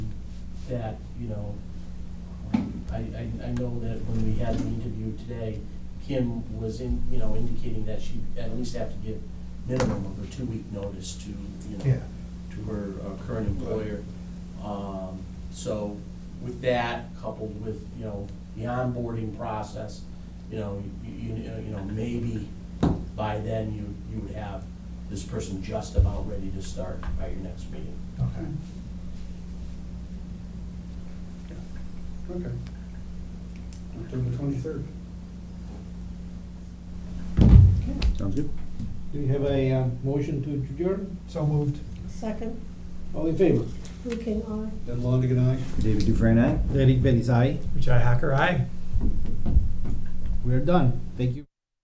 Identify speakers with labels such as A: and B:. A: that, you know, um, I, I, I know that when we had the interview today, Kim was in, you know, indicating that she at least have to give minimum of a two-week notice to, you know,
B: Yeah.
A: to her uh, current employer. Um, so with that coupled with, you know, the onboarding process, you know, you, you, you know, maybe by then you, you would have this person just about ready to start by your next meeting.
B: Okay.
C: Okay. October twenty-third.
D: Sounds good.
E: Do we have a uh, motion to adjourn?
B: So moved.
F: Second,
E: All in favor?
F: Drew King, aye.
C: Ed Longigan, aye.
D: David Dufresne, eh? aye?
E: Derek Bellis, aye.
B: Richai Hacker, aye.
E: We're done. Thank you.